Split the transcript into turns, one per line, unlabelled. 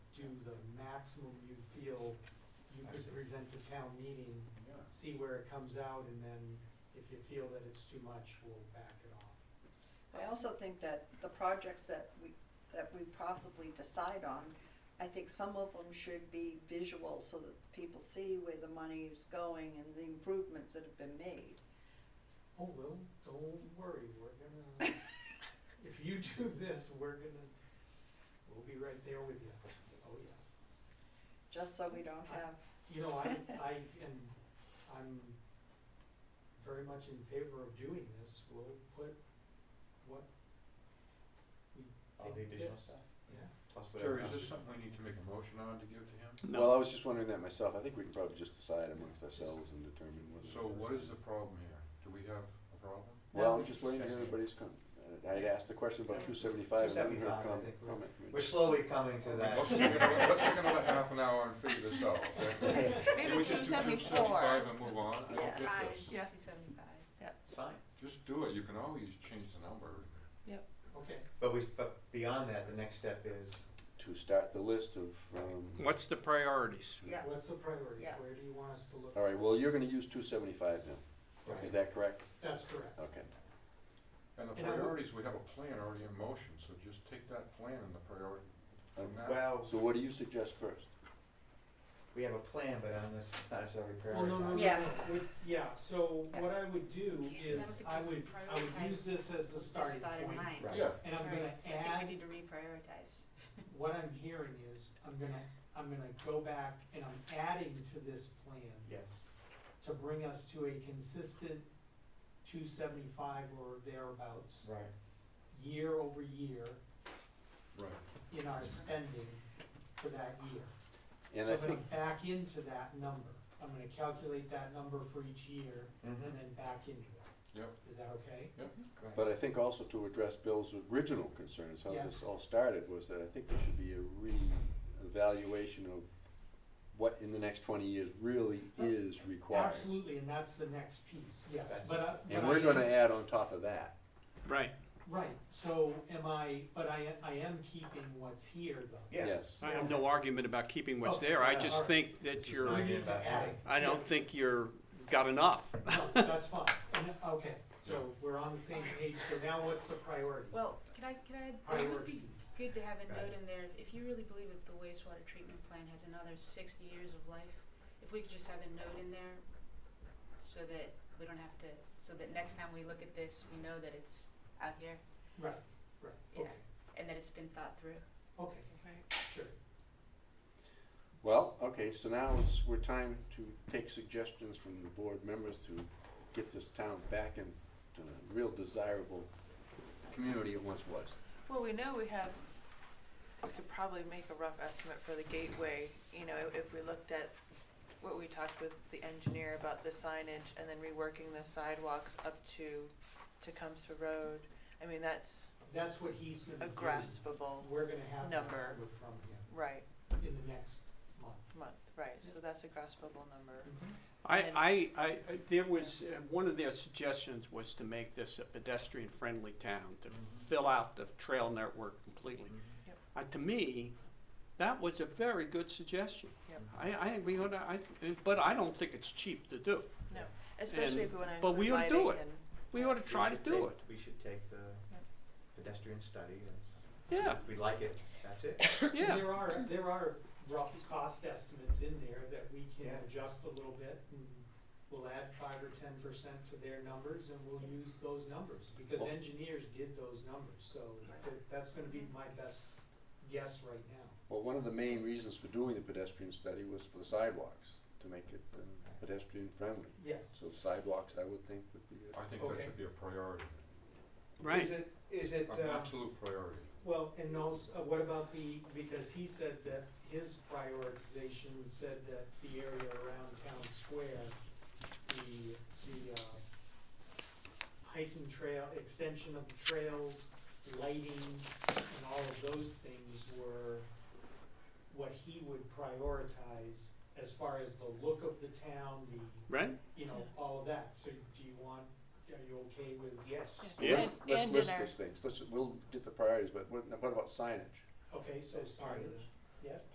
maximum you feel you
I
could
see.
present to town meeting,
Yeah.
see where it comes out, and then if you feel that it's too much, we'll back it off.
I also think that the projects that we, that we possibly decide on, I think some of them should be visual so that people see where the money is going and the improvements that have been made.
Oh, well, don't worry, we're gonna, if you do this, we're gonna, we'll be right there with you. Oh, yeah.
Just so we don't have,
You know, I, I am, I'm very much in favor of doing this, we'll put what we
All the
think
visual
fits.
stuff.
Yeah,
Plus whatever.
Terry, is
else
this
you-
something we need to make a motion on to give to him?
Well, I was just wondering that myself. I think we can probably just decide amongst ourselves and determine whether.
So what is the problem here? Do we have a problem?
Well, I'm just waiting to hear everybody's comment. I had asked the question about two seventy-five and then
275,
her
I
comment.
think we're-
comment.
We're slowly coming to that.
Let's take another, let's take another half an hour and figure this out, okay? Can we
Maybe two
just do
seventy-four.
275 and move on? I
Yeah,
don't
five,
get this.
yeah, two seventy-five, yeah.
It's fine,
Just do it, you can always change the number.
okay.
but we, but beyond that, the next step is,
To start the list of, um,
What's the priorities?
yeah,
What's the priority?
Yeah.
Where do you want us to look?
all right, well, you're gonna use two seventy-five now.
Right.
Is that correct?
That's correct.
Okay.
And the
And I would-
priorities, we have a plan already in motion, so just take that plan and the priority from that.
well,
Um, So what do you suggest first?
we have a plan, but on this, it's not necessarily
Well, Oh, no, no, no,
prioritized.
Yeah.
no, with- yeah, so what I would do
Yeah, 'cause
is,
I don't think
I
we
would, I would
prioritize
use this as a starting point.
Right.
Yeah,
And I'm gonna
Alright, so I
add
think we need to reprioritize.
what I'm hearing is, I'm gonna, I'm gonna go back and I'm adding to this plan
Yes,
to bring us to a consistent two seventy-five or thereabouts,
right.
year over year
right.
in our spending for that year.
And I
So I'm
think,
gonna back into that number, I'm gonna calculate that number for each year and
Mhm.
then back into it.
Yep.
Is that okay?
Mm-hmm.
but I think also to address Bill's original concerns, how
Yeah.
this all started, was that I think there should be a re-evaluation of what in the next twenty years really is required.
Absolutely, and that's the next piece, yes,
That's-
but I. but
And
I
we're
am-
gonna add on top of that.
Right.
Right, so am I, but I, I am keeping what's here though.
Yeah.
Yes.
I have no argument about keeping what's
Oh,
there. I
yeah,
just
alright.
think that
We
you're,
need to add it.
I don't think you're, got enough.
No, That's fine, And- okay, so we're on the same page, so now what's the priority?
Well, can I, can I, it would be
Priorities.
good to have a note
Right.
in there, if you really believe that the wastewater treatment plant has another sixty years of life, if we could just have a note in there so that we don't have to, so that next time we look at this, we know that it's out here
Right, right,
Yeah.
okay,
and that it's been thought through.
okay, sure.
Well, okay, so now it's, we're time to take suggestions from the board members to get this town back into the real desirable community it once was.
Well, we know we have, we could probably make a rough estimate for the gateway, you know, if we looked at what we talked with the engineer about the signage and then reworking the sidewalks up to Tecumseh Road. I mean, that's
That's what he's
a
gonna do.
graspable,
We're gonna have that
number.
number from him
right,
in the next month.
month, right, so that's a graspable number.
I,
And-
I, I, I- there was, uh, one of their suggestions was to make this a pedestrian-friendly town,
Mm-hmm.
to fill out the trail network completely.
Yep.
Uh, to me, that was a very good suggestion.
Yep.
Mm-hmm.
I, I, we, oughta- I, but I don't think it's cheap to do.
No, especially if
And-
we wanna
but
include
we'll do
lighting
it.
and-
We ought to try to
We should
do
take-
it.
We should take the
Yep.
pedestrian study, and
Yeah,
if we like it, that's it.
yeah.
And there are, there are rough cost estimates in there that we can
Yeah.
adjust a little bit and we'll add five or ten percent to their numbers and we'll use those numbers because
Well-
engineers did those numbers, so that- that's gonna be my best guess right now.
Well, one of the main reasons for doing the pedestrian study was for the sidewalks, to make it um, pedestrian-friendly.
Yes,
So sidewalks, I would think, would be a
I think that
Okay.
should be a priority,
Right.
Is it, is it,
an
uh,
absolute priority.
well, and also, uh, what about the, because he said that his prioritization said that the area around town square, the, the, uh, hiking trail, extension of the trails, lighting, and all of those things were what he would prioritize as far as the look of the town, the,
Right?
you know, all of that. So do you want, are you okay with?
yes,
Yeah.
Let's,
And-
let's
and
list
in our-
those things. Let's, we'll get the priorities, but what, what about signage?
Okay, so
That's
sorry,
fine.
yes?